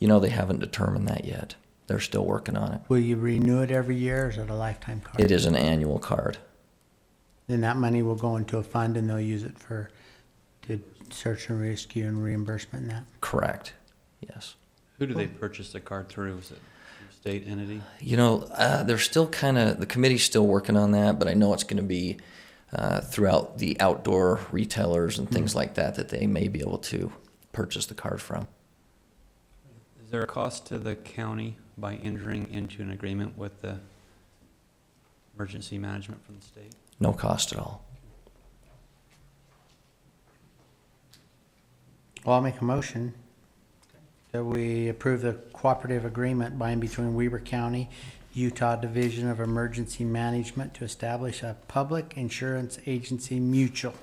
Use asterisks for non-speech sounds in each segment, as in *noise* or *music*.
You know, they haven't determined that yet. They're still working on it. Will you renew it every year or is it a lifetime card? It is an annual card. Then that money will go into a fund and they'll use it for, to search and rescue and reimbursement and that. Correct. Yes. Who do they purchase the card through? Is it a state entity? You know, uh, they're still kind of, the committee's still working on that, but I know it's going to be uh, throughout the outdoor retailers and things like that that they may be able to purchase the card from. Is there a cost to the county by entering into an agreement with the emergency management from the state? No cost at all. Well, I'll make a motion that we approve the cooperative agreement by and between Weber County, Utah Division of Emergency Management to establish a public insurance agency mutual.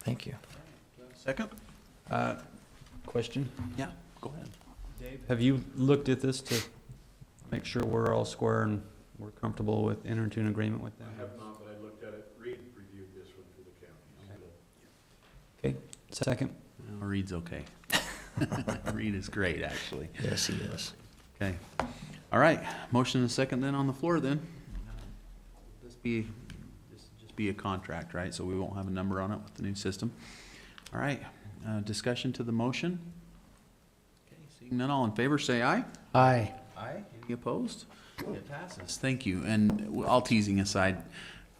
Thank you. Second? Uh, Question? Yeah, go ahead. Dave, have you looked at this to make sure we're all square and we're comfortable with entering into an agreement with them? I have not, but I looked at it, Reed reviewed this one for the county. I'm gonna- Okay, second? No, Reed's okay. *laughs* Reed is great, actually. Yes, he is. Okay. All right, motion and a second then on the floor then. This be, this just be a contract, right? So we won't have a number on it with the new system. All right, uh, discussion to the motion? Okay, Seeing none, all in favor, say aye. Aye. Aye. Any opposed? It passes. Thank you, and w- all teasing aside,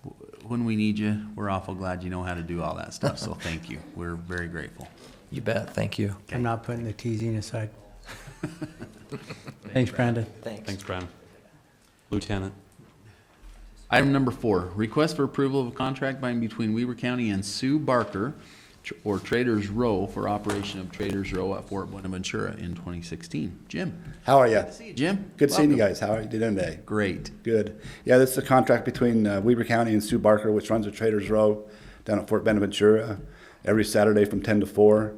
w- when we need you, we're awful glad you know how to do all that stuff, so thank you. We're very grateful. You bet. Thank you. I'm not putting the teasing aside. *laughs* Thanks, Brandon. Thanks, Brian. Lieutenant. Item number four, request for approval of a contract by and between Weaver County and Sue Barker tr- or Traders Row for operation of Traders Row at Fort Buenaventura in 2016. Jim? How are you? See you, Jim. Good seeing you Welcome. guys. How are you doing today? Great. Good. Yeah, this is a contract between uh, Weber County and Sue Barker, which runs a Trader's Row down at Fort Benaventura every Saturday from 10 to 4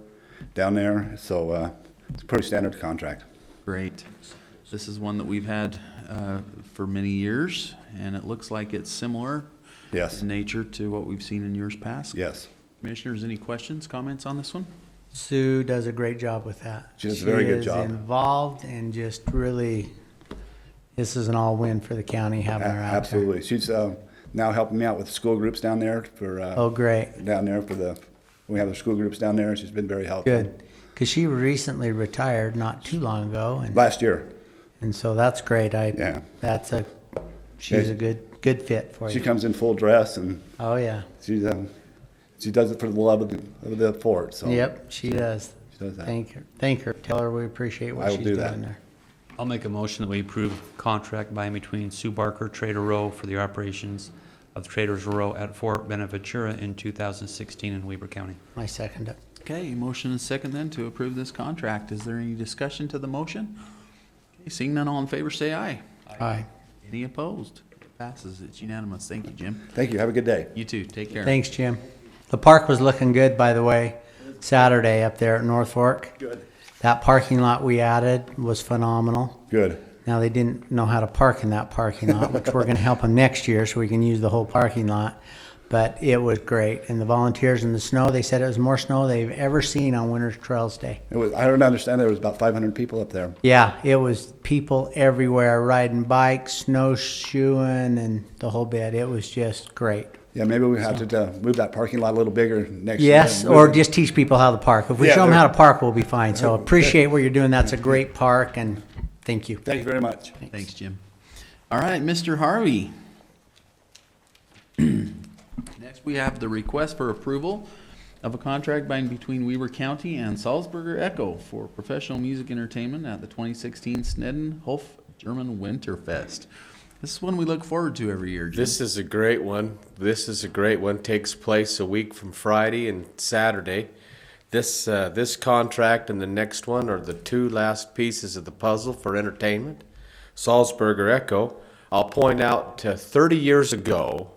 down there. So uh, it's a pretty standard contract. Great. This is one that we've had uh, for many years, and it looks like it's similar Yes. in nature to what we've seen in years past. Yes. Commissioners, any questions, comments on this one? Sue does a great job with that. She does a very good is job. Involved and just really, this is an all-win for the county A- having her out there. Absolutely. She's uh, now helping me out with school groups down there for uh, Oh, great. down there for the we have the school groups down there. She's been very helpful. Good. Because she recently retired not too long ago, and, Last year, and so that's great. I Yeah. that's a she's Yeah. a good good fit for she you. comes in full dress and oh yeah. she's um, she does it for the love of the, of the fort. So yep, she does. She does that. Thank her. Thank her. Tell her we appreciate what I will she's do doing that. there. I'll make a motion that we approve contract by and between Sue Barker, Trader Row for the operations of Traders Row at Fort Benaventura in 2016 in Weber County. I second it. Okay, motion and second then to approve this contract. Is there any discussion to the motion? Okay, Seeing none, all in favor, say aye. Aye. Any opposed? Passes, it's unanimous. Thank you, Jim. Thank you. Have a good day. You too, take care. Thanks, Jim. The park was looking good, by the way, Saturday up there at North Fork. Good. That parking lot we added was phenomenal. Good. Now they didn't know how to park in that parking lot, which we're going to help them next year so we can use the whole parking lot. But it was great. And the volunteers in the snow, they said it was more snow they've ever seen on Winter's Trails Day. It was, I don't understand. There was about 500 people up there. Yeah, it was people everywhere riding bikes, snowshoeing, and the whole bit. It was just great. Yeah, maybe we have to uh, move that parking lot a little bigger next year. Yes, or just teach people how to park. If we Yeah, show them they're- how to park, we'll be fine. So appreciate what you're doing. That's a great park, and thank you. Thank you very much. Thanks, Jim. All right, Mr. Harvey. *clears throat* Next, we have the request for approval of a contract by and between Weaver County and Salzburger Echo for professional music entertainment at the 2016 Snedden Hof German Winterfest. This is one we look forward to every year, Jim. This is a great one. This is a great one. Takes place a week from Friday and Saturday. This uh, this contract and the next one are the two last pieces of the puzzle for entertainment. Salzburger Echo. I'll point out uh, 30 years ago,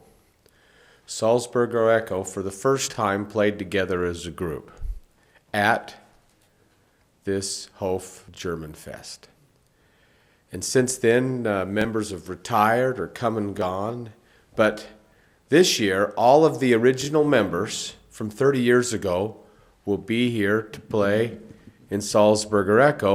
Salzburger Echo for the first time played together as a group at this Hof German Fest. And since then, uh, members have retired or come and gone. But this year, all of the original members from 30 years ago will be here to play in Salzburger Echo.